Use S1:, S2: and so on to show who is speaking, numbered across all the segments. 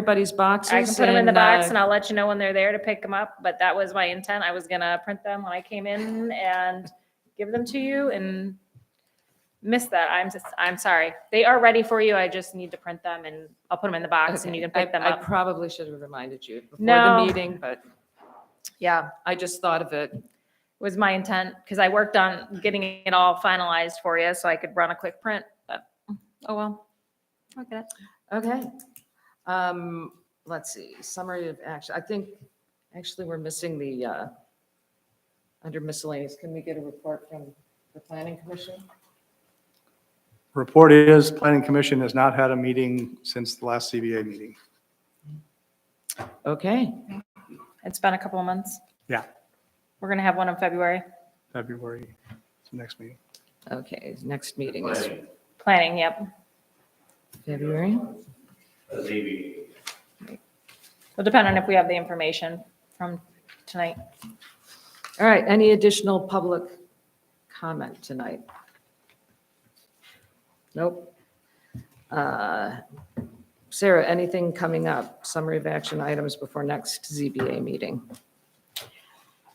S1: everybody's boxes.
S2: I can put them in the
S1: and,
S2: box
S1: uh,
S2: and I'll let you know when they're there to pick them up, but that was my intent. I was gonna print them when I came in and give them to you and miss that. I'm just, I'm sorry. They are ready for you. I just need to print them and I'll put them in the box and you can
S1: okay,
S2: pick them
S1: I- I
S2: up.
S1: probably should have reminded you before the
S2: No.
S1: meeting, but
S2: Yeah,
S1: I just thought of it.
S2: was my intent, because I worked on getting it all finalized for you so I could run a quick print, but, oh well. Okay.
S1: Okay. Um, let's see, summary of action. I think, actually, we're missing the, uh, under miscellaneous, can we get a report from the planning commission?
S3: Report is, Planning Commission has not had a meeting since the last CBA meeting.
S1: Okay,
S2: It's been a couple of months.
S3: Yeah.
S2: We're gonna have one in February.
S3: February, it's the next meeting.
S1: okay, next meeting is
S2: Planning, yep.
S1: February.
S2: Will depend on if we have the information from tonight.
S1: All right, any additional public comment tonight? Nope. Uh, Sarah, anything coming up? Summary of action items before next ZBA meeting?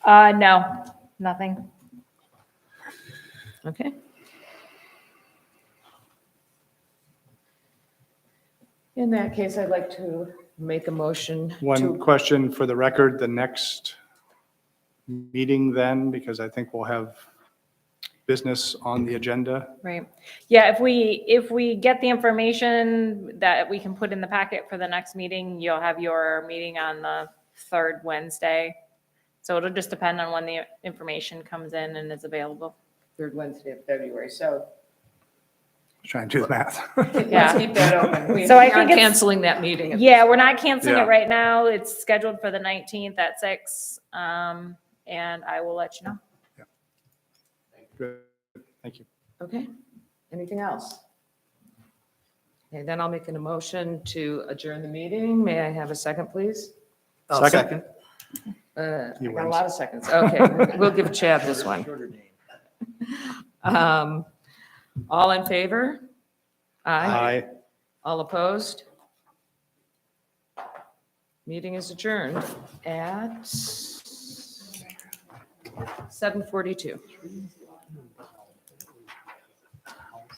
S2: Uh, no, nothing.
S1: Okay. In that case, I'd like to make a motion
S3: One
S1: to,
S3: question for the record, the next meeting then, because I think we'll have business on the agenda.
S2: Right. Yeah, if we, if we get the information that we can put in the packet for the next meeting, you'll have your meeting on the third Wednesday. So it'll just depend on when the information comes in and is available.
S1: third Wednesday of February, so.
S3: Trying to do the math.
S2: Yeah.
S1: Let's keep that open. We we
S2: So I
S1: aren't
S2: think it's-
S1: canceling that meeting. at
S2: Yeah, we're not canceling it
S3: Yeah.
S2: right now. It's scheduled for the nineteenth at six. Um, and I will let you know.
S3: Good. Thank you.
S1: Okay, anything else? And then I'll make an emotion to adjourn the meeting. May I have a second, please?
S3: Second.
S1: Uh, I
S3: He
S1: got a
S3: wins.
S1: lot of seconds. Okay, we'll give Chad this one. Um, All in favor? Aye.
S3: Aye.
S1: All opposed? Meeting is adjourned at 7:42.